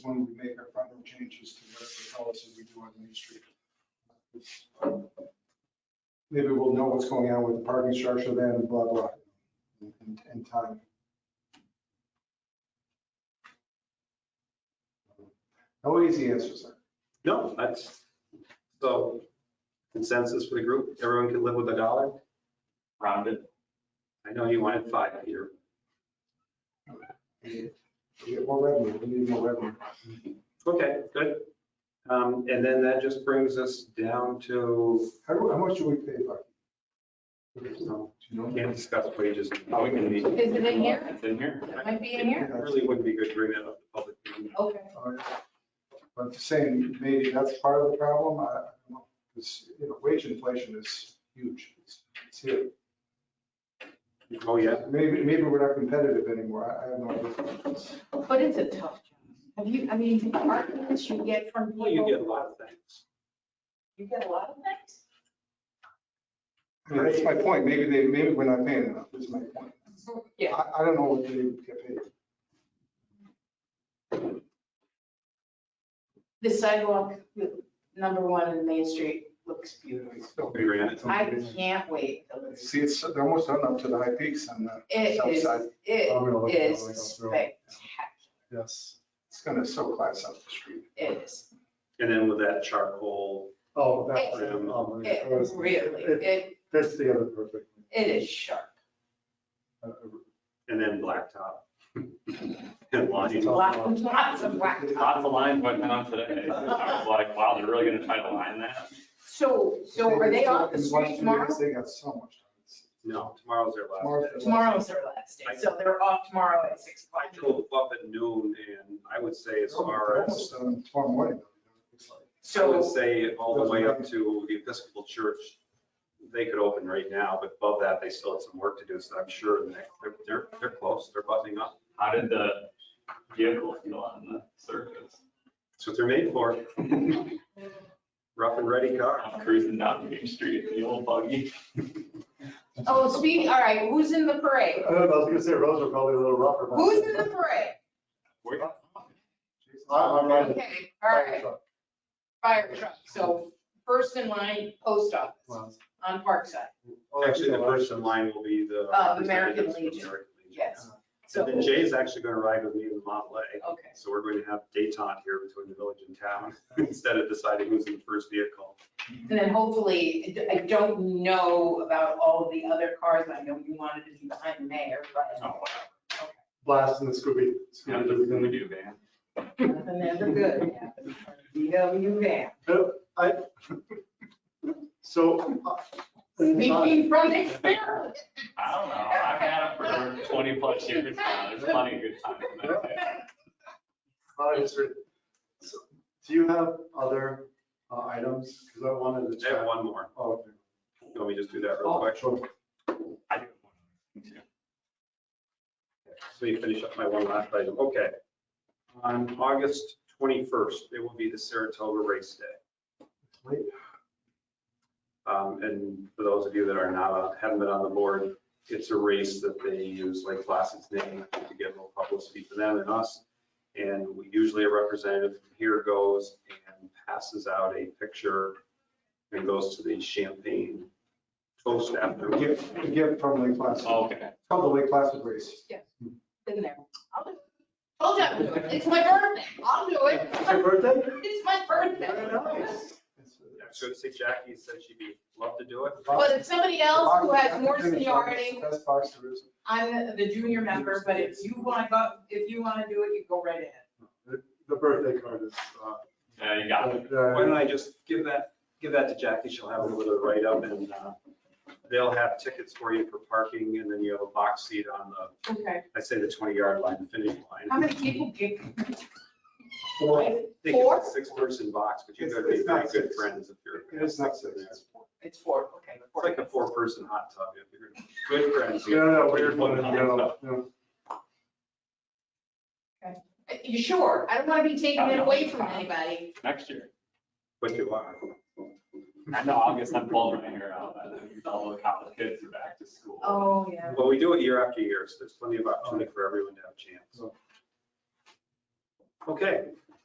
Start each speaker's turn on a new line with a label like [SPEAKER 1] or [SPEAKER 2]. [SPEAKER 1] changes to what the policy we do on Main Street. Um, Maybe we'll know what's going on with the parking structure then, and blah, blah, in, in time. No easy answers. there.
[SPEAKER 2] No, that's, so consensus for the group, everyone can live with a dollar?
[SPEAKER 3] rounded.
[SPEAKER 2] I know you wanted five, Peter.
[SPEAKER 1] We get more revenue, we need more revenue.
[SPEAKER 2] Okay, good. Um, and then that just brings us down to,
[SPEAKER 1] How, how much do we pay for?
[SPEAKER 2] no,
[SPEAKER 1] Do you know?
[SPEAKER 2] can't discuss wages.
[SPEAKER 3] Oh, we can be.
[SPEAKER 4] Is it in here?
[SPEAKER 3] It's in here.
[SPEAKER 4] It might be in here.
[SPEAKER 2] It Really wouldn't be good to bring that up to public. meeting.
[SPEAKER 4] Okay.
[SPEAKER 1] But saying maybe that's part of the problem, I, I don't know, because, you know, wage inflation is huge. It's it's here.
[SPEAKER 2] Oh, yeah,
[SPEAKER 1] Maybe, maybe we're not competitive anymore. I, I have no idea.
[SPEAKER 4] But it's a tough job. Have you, I mean, the arguments you get from people.
[SPEAKER 2] well, you get a lot of things.
[SPEAKER 4] You get a lot of things?
[SPEAKER 1] I mean, That's my point. Maybe they, maybe we're not paying enough, is my point.
[SPEAKER 4] Yeah.
[SPEAKER 1] I, I don't know what they get paid.
[SPEAKER 4] The sidewalk, number one in Main Street looks beautiful.
[SPEAKER 2] We ran it.
[SPEAKER 4] I can't wait till it's,
[SPEAKER 1] See, it's, they're almost done up to the high peaks uh, on the
[SPEAKER 4] it
[SPEAKER 1] south
[SPEAKER 4] is,
[SPEAKER 1] side. I'm gonna look
[SPEAKER 4] it
[SPEAKER 1] at it
[SPEAKER 4] is
[SPEAKER 1] when I go through.
[SPEAKER 4] spectacular.
[SPEAKER 1] Yes. It's gonna so class up the street.
[SPEAKER 4] It is.
[SPEAKER 2] And then with that charcoal,
[SPEAKER 5] Oh, that's,
[SPEAKER 2] Hey.
[SPEAKER 5] um,
[SPEAKER 4] It
[SPEAKER 5] that's-
[SPEAKER 4] really,
[SPEAKER 5] it-
[SPEAKER 4] it,
[SPEAKER 5] that's the other perfect.
[SPEAKER 4] it is sharp.
[SPEAKER 1] Uh, uh,
[SPEAKER 2] and then blacktop. And lighting.
[SPEAKER 4] Lots, lots of black.
[SPEAKER 3] Lots of lines went down today. I was like, wow, they're really gonna try to line that?
[SPEAKER 4] So, so are they off the
[SPEAKER 1] in West
[SPEAKER 4] street tomorrow?
[SPEAKER 1] Vegas, They got so much.
[SPEAKER 2] No, tomorrow's their
[SPEAKER 1] Tomorrow's
[SPEAKER 2] last
[SPEAKER 1] their
[SPEAKER 2] day.
[SPEAKER 4] Tomorrow's their last day, so they're off tomorrow at six o'clock.
[SPEAKER 2] I drove up at noon and I would say
[SPEAKER 1] Oh,
[SPEAKER 2] as far as.
[SPEAKER 1] Almost done tomorrow morning. It's like-
[SPEAKER 2] I would
[SPEAKER 4] So,
[SPEAKER 2] say all the way up to the Episcopal Church, they could open right now, but above that, they still have some work to do, so I'm sure the next- they're, they're, they're close, they're buttoning up.
[SPEAKER 3] How did the vehicle feel on the surface?
[SPEAKER 2] That's what they're made for, rough and ready car.
[SPEAKER 3] I'm cruising down Main Street in the old buggy.
[SPEAKER 4] oh, speaking, all right, who's in the parade?
[SPEAKER 5] I don't know, I was gonna say roads are probably a little rougher. but-
[SPEAKER 4] Who's in the parade?
[SPEAKER 3] Where-
[SPEAKER 5] I'm- I'm riding the
[SPEAKER 4] Okay, all right,
[SPEAKER 5] truck.
[SPEAKER 4] fire truck. So first in line, post office on Parkside.
[SPEAKER 1] Well,
[SPEAKER 2] Actually, the first in line will be the.
[SPEAKER 4] Uh, American
[SPEAKER 2] representatives from
[SPEAKER 4] Legion.
[SPEAKER 2] American Legion.
[SPEAKER 4] Yes.
[SPEAKER 2] And then
[SPEAKER 4] So,
[SPEAKER 2] Jay's actually gonna ride with me in the Model A,
[SPEAKER 4] okay.
[SPEAKER 2] so we're going to have detente here between the village and town, instead of deciding who's in the first vehicle.
[SPEAKER 4] And then hopefully, I don't know about all of the other cars. I know you wanted to be behind the mayor,
[SPEAKER 3] Oh, wow.
[SPEAKER 5] Blast in the Scooby. Scooby
[SPEAKER 3] Yeah, this is
[SPEAKER 5] Doo.
[SPEAKER 3] gonna do, man.
[SPEAKER 4] but nothing ever good happens. VW van.
[SPEAKER 5] So. uh,
[SPEAKER 4] Speaking from experience.
[SPEAKER 3] I don't know. I've had it for twenty plus years now. There's plenty of good times. in that day.
[SPEAKER 5] my history. Uh, So, Do you have other uh, items? Because I wanted to
[SPEAKER 2] I have
[SPEAKER 5] check.
[SPEAKER 2] one more,
[SPEAKER 5] Oh, okay.
[SPEAKER 2] let me just do that real
[SPEAKER 5] Oh,
[SPEAKER 2] quick.
[SPEAKER 5] sure.
[SPEAKER 3] I do. one too.
[SPEAKER 2] So you finish up my one last item. Okay. On August 21st, it will be the Saratoga Race Day. Um, And for those of you that are not, on- haven't been on the board, it's a race that they use Lake Placid's name to get more publicity for them and us. And we- usually a representative from here goes and passes out a picture and goes to the Champagne Toast after.
[SPEAKER 1] We get, we get from Lake Placid,
[SPEAKER 5] Oh.
[SPEAKER 1] it's
[SPEAKER 3] Okay.
[SPEAKER 1] called the Lake Placid Race.
[SPEAKER 4] Been there. I'll do it. Told you I would do it. It's my birthday. I'll do it.
[SPEAKER 5] It's your birthday?
[SPEAKER 4] It's my
[SPEAKER 5] Very
[SPEAKER 4] birthday.
[SPEAKER 5] nice.
[SPEAKER 2] I was going to say Jackie said she'd be, love to do it.
[SPEAKER 4] But it's somebody else who has more
[SPEAKER 1] Boxing,
[SPEAKER 4] seniority,
[SPEAKER 1] Best boxer is-
[SPEAKER 4] I'm the junior member, but if you want to go, if you want to do it, you go right ahead.
[SPEAKER 5] The- The birthday card is. uh,
[SPEAKER 3] Yeah, you got it.
[SPEAKER 5] uh,
[SPEAKER 2] Why don't I just give that, give that to Jackie, she'll have a little write-up and uh, they'll have tickets for you for parking and then you have a box seat on the,
[SPEAKER 4] Okay.
[SPEAKER 2] I'd say the 20-yard line, the finish line.
[SPEAKER 4] How many people get?
[SPEAKER 2] Four. I think
[SPEAKER 4] Four?
[SPEAKER 2] it's a six-person box, but you've got to
[SPEAKER 1] It's-
[SPEAKER 2] be
[SPEAKER 1] it's not
[SPEAKER 2] very good
[SPEAKER 1] six.
[SPEAKER 2] friends if you're.
[SPEAKER 1] It's not six. it's four.
[SPEAKER 4] It's four, okay.
[SPEAKER 2] It's like a four-person hot tub, if you're good friends.
[SPEAKER 5] No, no, no, weird one. No, no.
[SPEAKER 4] Uh, You sure? I don't want to be taking it away from anybody.
[SPEAKER 3] Next year.
[SPEAKER 2] But you are.
[SPEAKER 3] I know, I'll get some pulling my hair out. I think All the college kids are back to school.
[SPEAKER 4] Oh, yeah.
[SPEAKER 2] Well, we do it year after year, so there's plenty of opportunity for everyone to have a chance. Okay,